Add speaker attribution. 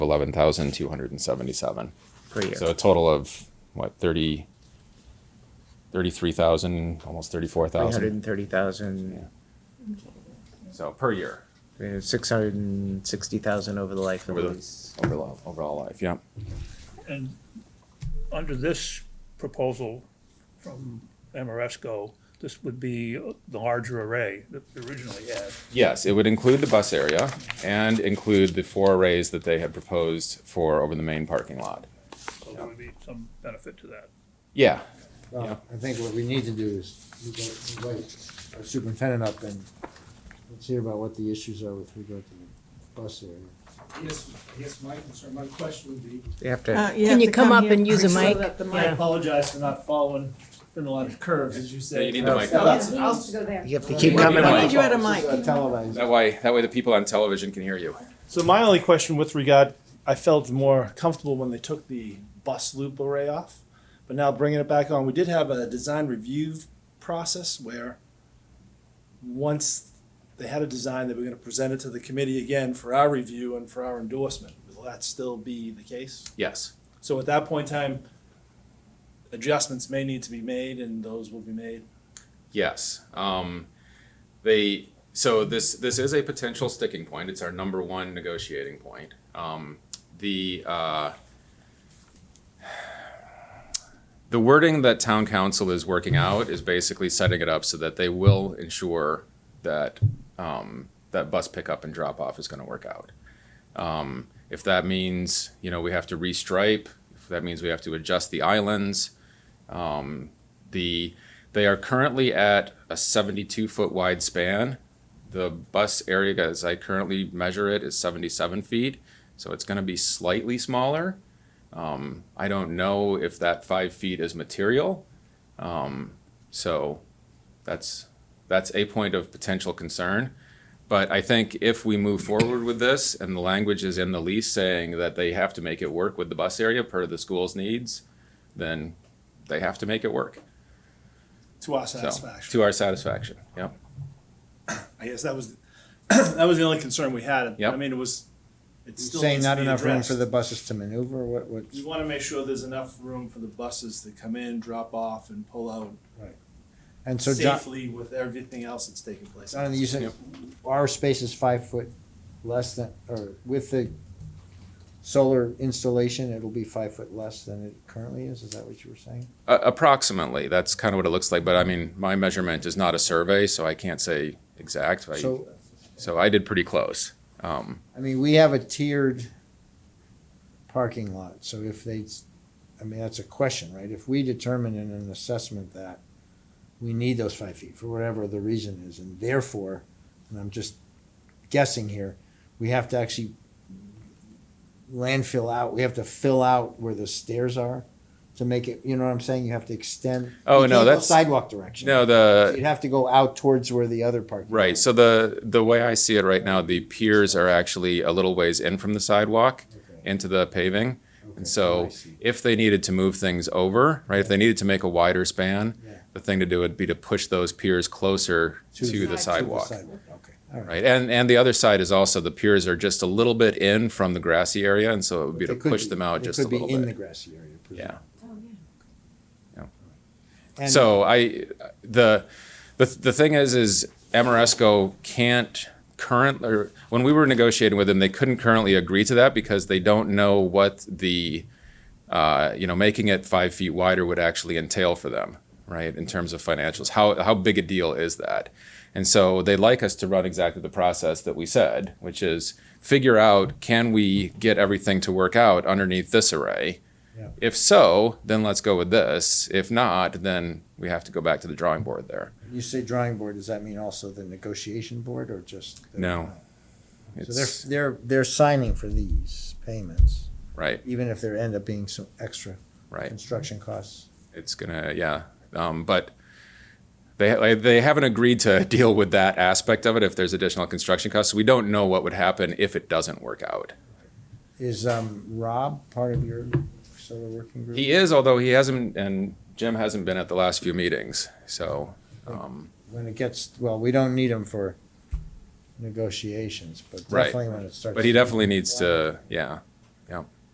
Speaker 1: eleven thousand two hundred and seventy-seven.
Speaker 2: per year.
Speaker 1: So a total of what, thirty, thirty-three thousand, almost thirty-four
Speaker 2: Three hundred
Speaker 1: thousand.
Speaker 2: and thirty thousand, uh,
Speaker 1: So per year,
Speaker 2: six hundred and sixty thousand over the life of
Speaker 1: Over
Speaker 2: the
Speaker 1: the-
Speaker 2: lease.
Speaker 1: overall, overall life, yeah.
Speaker 3: And under this proposal from Amoresco, this would be the larger array that we originally had.
Speaker 1: Yes, it would include the bus area and include the four arrays that they had proposed for over the main parking lot.
Speaker 3: So there would be some benefit to that.
Speaker 1: Yeah, Yeah.
Speaker 4: Well, I think what we need to do is invite- invite our superintendent up and let's hear about what the issues are with regard to the bus area.
Speaker 5: Yes, yes, my concern, my question would be,
Speaker 2: You have
Speaker 6: Uh,
Speaker 2: to,
Speaker 6: have
Speaker 7: Can you
Speaker 6: to
Speaker 7: come up
Speaker 6: here.
Speaker 7: and use a
Speaker 5: Slow
Speaker 7: mic?
Speaker 5: that the mic. I apologize for not following, been a lot of curves, as you say.
Speaker 1: you need the mic.
Speaker 5: No, that's- I'll-
Speaker 2: you have to keep
Speaker 1: Mic.
Speaker 2: coming
Speaker 1: Mic.
Speaker 2: up.
Speaker 6: Need you at a
Speaker 4: This is, uh,
Speaker 6: mic.
Speaker 4: Televised.
Speaker 1: that way, that way the people on television can hear you.
Speaker 5: So my only question with regard, I felt more comfortable when they took the bus loop array off, but now bringing it back on, we did have a design review process where once they had a design, they were gonna present it to the committee again for our review and for our endorsement. Will that still be the case?
Speaker 1: Yes,
Speaker 5: So at that point in time, adjustments may need to be made and those will be made.
Speaker 1: yes. Um, they, so this, this is a potential sticking point. It's our number one negotiating point. Um, the, uh, the wording that town council is working out is basically setting it up so that they will ensure that, um, that bus pickup and drop off is gonna work out. Um, if that means, you know, we have to restripe, if that means we have to adjust the islands, um, the, they are currently at a seventy-two foot wide span. The bus area, as I currently measure it, is seventy-seven feet, so it's gonna be slightly smaller. Um, I don't know if that five feet is material. Um, so that's, that's a point of potential concern. But I think if we move forward with this and the language is in the lease saying that they have to make it work with the bus area per the school's needs, then they have to make it work.
Speaker 5: To our
Speaker 1: So,
Speaker 5: satisfaction.
Speaker 1: to our satisfaction, yep.
Speaker 5: I guess that was, that was the only concern we had.
Speaker 1: Yep.
Speaker 5: I mean, it was, it
Speaker 4: You're
Speaker 5: still
Speaker 4: Saying
Speaker 5: needs
Speaker 4: not
Speaker 5: to be
Speaker 4: enough room for the
Speaker 5: addressed.
Speaker 4: buses to maneuver, what, what?
Speaker 5: We want to make sure there's enough room for the buses to come in, drop off, and pull out
Speaker 4: And so John,
Speaker 5: safely with everything else that's taking place.
Speaker 4: John, you said our space is five foot less than, or with the solar installation, it'll be five foot less than it currently is, is that what you were saying?
Speaker 1: Uh, approximately, that's kind of what it looks like, but I mean, my measurement is not a survey, so I can't say exact. I-
Speaker 4: So
Speaker 1: So I did pretty close. Um,
Speaker 4: I mean, we have a tiered parking lot, so if they, I mean, that's a question, right? If we determine in an assessment that we need those five feet for whatever the reason is, and therefore, and I'm just guessing here, we have to actually landfill out, we have to fill out where the stairs are to make it, you know what I'm saying? You have to extend.
Speaker 1: Oh,
Speaker 4: you
Speaker 1: no,
Speaker 4: can't go
Speaker 1: that's-
Speaker 4: Sidewalk direction.
Speaker 1: No,
Speaker 4: So
Speaker 1: the,
Speaker 4: You'd have to go out towards where the other parking.
Speaker 1: Right. So the the way I see it right now, the piers are actually a little ways in from the sidewalk
Speaker 4: Okay.
Speaker 1: into the paving.
Speaker 4: Okay,
Speaker 1: And so
Speaker 4: I see.
Speaker 1: if they needed to move things over, right, if they needed to make a wider span,
Speaker 4: Yeah.
Speaker 1: the thing to do would be to push those piers closer
Speaker 4: To the-
Speaker 1: to the sidewalk.
Speaker 4: Okay, all right.
Speaker 1: Right. And and the other side is also the piers are just a little bit in from the grassy area. And so it would be to
Speaker 4: They could
Speaker 1: push
Speaker 4: be-
Speaker 1: them out
Speaker 4: they
Speaker 1: just a little
Speaker 4: Could be in the
Speaker 1: bit.
Speaker 4: grassy area.
Speaker 1: Yeah.
Speaker 4: And-
Speaker 1: So I, the, the, the thing is, is Amoresco can't current, or when we were negotiating with them, they couldn't currently agree to that because they don't know what the, uh, you know, making it five feet wider would actually entail for them, right? In terms of financials, how, how big a deal is that? And so they like us to run exactly the process that we said, which is figure out, can we get everything to work out underneath this array? If so, then let's go with this. If not, then we have to go back to the drawing board there.
Speaker 4: When You say drawing board, does that mean also the negotiation board or just? the-
Speaker 1: No.
Speaker 4: So
Speaker 1: It's,
Speaker 4: they're, they're, they're signing for these payments,
Speaker 1: right,
Speaker 4: even if there end up being some extra
Speaker 1: right.
Speaker 4: construction costs.
Speaker 1: It's gonna, yeah. Um, but they, like, they haven't agreed to deal with that aspect of it if there's additional construction costs. We don't know what would happen if it doesn't work out.
Speaker 4: Is, um, Rob part of your solar working group?
Speaker 1: He is, although he hasn't, and Jim hasn't been at the last few meetings, so, um,
Speaker 4: When it gets, well, we don't need him for negotiations, but
Speaker 1: Right.
Speaker 4: definitely when it starts.
Speaker 1: but he definitely needs to, yeah. Yeah.